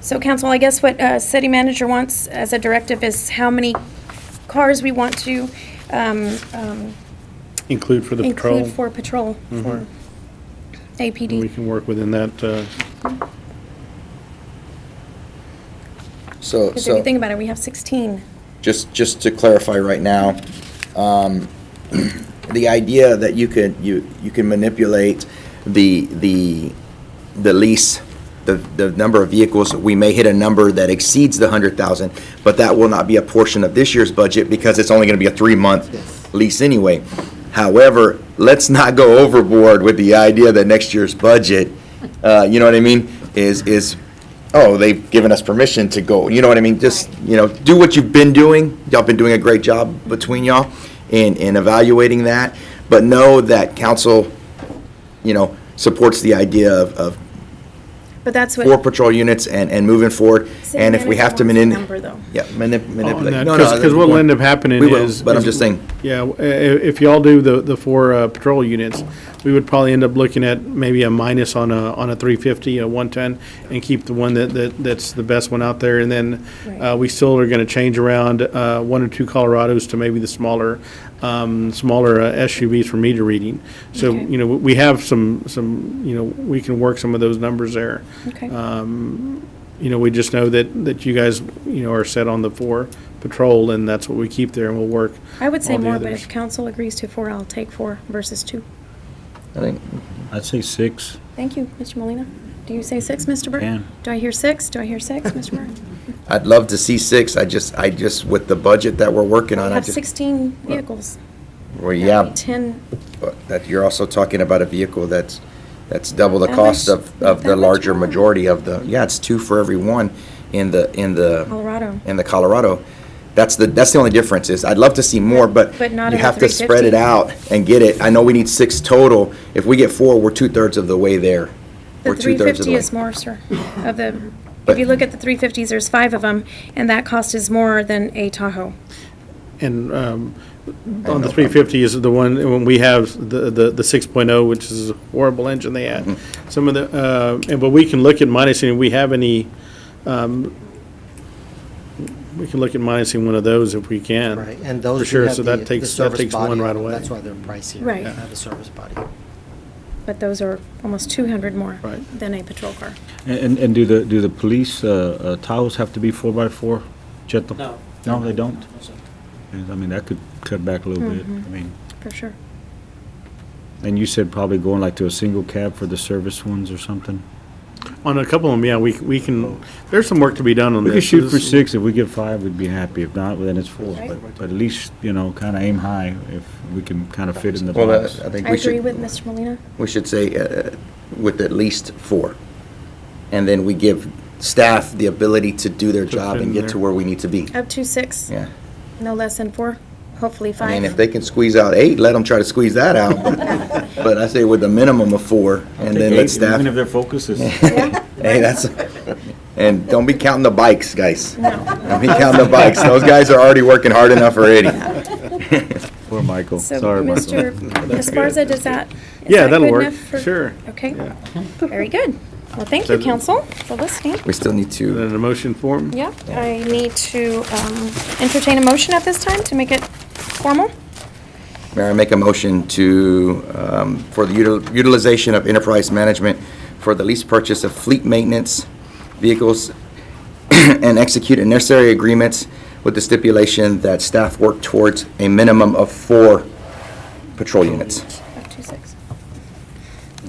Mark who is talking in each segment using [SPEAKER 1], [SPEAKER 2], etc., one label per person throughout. [SPEAKER 1] So council, I guess what uh, city manager wants as a directive is how many cars we want to um, um,
[SPEAKER 2] Include for the patrol.
[SPEAKER 1] include for patrol, for
[SPEAKER 2] and We
[SPEAKER 1] APD.
[SPEAKER 2] can work within that, uh,
[SPEAKER 3] So,
[SPEAKER 1] Because if you
[SPEAKER 3] so,
[SPEAKER 1] think about it, we have 16.
[SPEAKER 3] just, just to clarify right now, um, the idea that you could, you, you can manipulate the, the, the lease, the, the number of vehicles, we may hit a number that exceeds the hundred thousand, but that will not be a portion of this year's budget because it's only gonna be a three-month lease anyway. However, let's not go overboard with the idea that next year's budget, uh, you know what I mean, is, is, oh, they've given us permission to go, you know what I mean? Just, you know, do what you've been doing. Y'all been doing a great job between y'all in, in evaluating that. But know that council, you know, supports the idea of, of
[SPEAKER 1] But that's
[SPEAKER 3] four
[SPEAKER 1] what,
[SPEAKER 3] patrol units and, and moving forward.
[SPEAKER 1] City
[SPEAKER 3] And if we have to
[SPEAKER 1] manager
[SPEAKER 3] manip-
[SPEAKER 1] wants the number, though.
[SPEAKER 3] Yeah, manip-
[SPEAKER 2] on
[SPEAKER 3] manipulate.
[SPEAKER 2] that,
[SPEAKER 3] No, no,
[SPEAKER 2] because what'll end up happening
[SPEAKER 3] We will,
[SPEAKER 2] is.
[SPEAKER 3] but I'm
[SPEAKER 2] is-
[SPEAKER 3] just saying.
[SPEAKER 2] Yeah, w- i- if y'all do the, the four uh, patrol units, we would probably end up looking at maybe a minus on a, on a three fifty, a one ten, and keep the one that, that, that's the best one out there, and then, uh,
[SPEAKER 1] Right.
[SPEAKER 2] we still are gonna change around, uh, one or two Colorados to maybe the smaller, um, smaller uh, SUVs for meter reading. So,
[SPEAKER 1] Okay.
[SPEAKER 2] you know, we we have some, some, you know, we can work some of those numbers there.
[SPEAKER 1] okay.
[SPEAKER 2] Uh, You know, we just know that, that you guys, you know, are set on the four patrol, and that's what we keep there, and we'll work.
[SPEAKER 1] I would say
[SPEAKER 2] all the
[SPEAKER 1] more, but
[SPEAKER 2] others.
[SPEAKER 1] if council agrees to four, I'll take four versus two.
[SPEAKER 3] I think
[SPEAKER 4] I'd say six.
[SPEAKER 1] Thank you, Mr. Molina. Do you say six, Mr. Burke?
[SPEAKER 4] Can.
[SPEAKER 1] Do I hear six? Do I hear six, Mr. Burke?
[SPEAKER 3] I'd love to see six. I just, I just, with the budget that we're working on,
[SPEAKER 1] We
[SPEAKER 3] I
[SPEAKER 1] have
[SPEAKER 3] just,
[SPEAKER 1] 16 vehicles.
[SPEAKER 3] well, yeah.
[SPEAKER 1] 10.
[SPEAKER 3] But that, you're also talking about a vehicle that's, that's double the
[SPEAKER 1] That
[SPEAKER 3] cost
[SPEAKER 1] much-
[SPEAKER 3] of, of the
[SPEAKER 1] that much
[SPEAKER 3] larger
[SPEAKER 1] more.
[SPEAKER 3] majority of the, yeah, it's two for every one in the, in the.
[SPEAKER 1] Colorado.
[SPEAKER 3] In the Colorado. That's the, that's the only difference is, I'd love to see more, but.
[SPEAKER 1] But not
[SPEAKER 3] You
[SPEAKER 1] in the
[SPEAKER 3] have to spread it
[SPEAKER 1] 350.
[SPEAKER 3] out and get it. I know we need six total. If we get four, we're two-thirds of the way there.
[SPEAKER 1] The
[SPEAKER 3] We're two-thirds
[SPEAKER 1] 350
[SPEAKER 3] of the way.
[SPEAKER 1] is more, sir, of the, if
[SPEAKER 3] But-
[SPEAKER 1] you look at the 350s, there's five of them, and that cost is more than a Tahoe.
[SPEAKER 2] And um, on
[SPEAKER 3] know.
[SPEAKER 2] the 350 is the one, when we have the the the 6.0, which is a horrible engine they had.
[SPEAKER 5] Mm-hmm.
[SPEAKER 2] Some of the, uh, and but we can look at minusing, we have any, um, we can look at minusing one of those if we can.
[SPEAKER 5] Right, and
[SPEAKER 2] For
[SPEAKER 5] those who
[SPEAKER 2] sure,
[SPEAKER 5] have
[SPEAKER 2] so
[SPEAKER 5] the,
[SPEAKER 2] that
[SPEAKER 5] the
[SPEAKER 2] takes, that
[SPEAKER 5] service
[SPEAKER 2] takes one
[SPEAKER 5] body,
[SPEAKER 2] right away.
[SPEAKER 5] that's why they're pricier.
[SPEAKER 1] Right.
[SPEAKER 5] They have a service body.
[SPEAKER 1] But those are almost 200 more
[SPEAKER 2] Right.
[SPEAKER 1] than a patrol car.
[SPEAKER 4] And, and do the, do the police uh, uh, towers have to be four by four? Jet the-
[SPEAKER 6] No.
[SPEAKER 4] No, they don't? And, I mean, that could cut back a little bit.
[SPEAKER 1] Mm-hmm.
[SPEAKER 4] I mean,
[SPEAKER 1] For sure.
[SPEAKER 4] and you said probably going like to a single cab for the service ones or something?
[SPEAKER 2] On a couple of them, yeah, we we can, there's some work to be done on
[SPEAKER 4] We
[SPEAKER 2] this.
[SPEAKER 4] could shoot for
[SPEAKER 2] This-
[SPEAKER 4] six. If we get five, we'd be happy. If not, then it's four.
[SPEAKER 1] Right.
[SPEAKER 4] But, but at least, you know, kind of aim high if we can kind of fit in the
[SPEAKER 3] Well, I
[SPEAKER 4] box.
[SPEAKER 3] I think
[SPEAKER 1] I
[SPEAKER 3] we should.
[SPEAKER 1] agree with Mr. Molina.
[SPEAKER 3] we should say, uh, with at least four. And then we give staff the ability to do their
[SPEAKER 2] To
[SPEAKER 3] job
[SPEAKER 2] fit in
[SPEAKER 3] and get to
[SPEAKER 2] there.
[SPEAKER 3] where we need to be.
[SPEAKER 1] Up to six,
[SPEAKER 3] Yeah.
[SPEAKER 1] no less than four, hopefully
[SPEAKER 3] I mean, if
[SPEAKER 1] five.
[SPEAKER 3] they can squeeze out eight, let them try to squeeze that out. But- But I say with a minimum of four, and then let staff,
[SPEAKER 4] Even if their focus is.
[SPEAKER 3] hey, that's, and don't be counting the bikes, guys.
[SPEAKER 1] No.
[SPEAKER 3] Don't be counting the bikes. Those guys are already working hard enough already.
[SPEAKER 4] Poor Michael.
[SPEAKER 1] So,
[SPEAKER 4] Sorry, Michael.
[SPEAKER 1] Mr. Esparza, does that? is
[SPEAKER 2] Yeah,
[SPEAKER 1] that
[SPEAKER 2] that'll
[SPEAKER 1] good
[SPEAKER 2] work,
[SPEAKER 1] enough for-
[SPEAKER 2] sure.
[SPEAKER 1] Okay,
[SPEAKER 2] Yeah.
[SPEAKER 1] very good. Well, thank you, council, for listening.
[SPEAKER 3] We still need to,
[SPEAKER 2] Then a motion form?
[SPEAKER 1] Yeah, I need to um, entertain a motion at this time to make it formal.
[SPEAKER 3] Mayor, I make a motion to, um, for the util- utilization of enterprise management for the lease purchase of fleet maintenance vehicles and execute necessary agreements with the stipulation that staff work towards a minimum of four patrol units.
[SPEAKER 1] Up to six.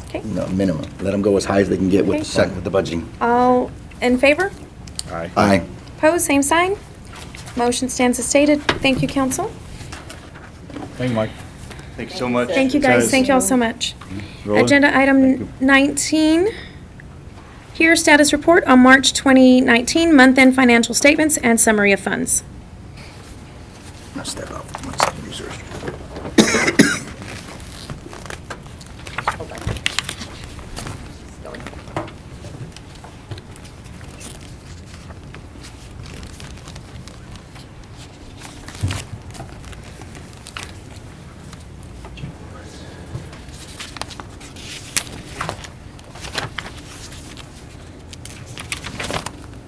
[SPEAKER 1] Okay,
[SPEAKER 3] No, minimum. Let them go as high as they can get with,
[SPEAKER 1] Okay.
[SPEAKER 3] with the budgeting.
[SPEAKER 1] all in favor?
[SPEAKER 3] Aye.
[SPEAKER 1] Opposed, same sign. Motion stands as stated. Thank you, council.
[SPEAKER 4] Thank you, Mike.
[SPEAKER 1] Thank you, guys. Thank you all so much.
[SPEAKER 4] Roland?
[SPEAKER 1] Agenda item 19, here status report on March 2019, month-end financial statements and summary of funds.
[SPEAKER 3] I'll step up.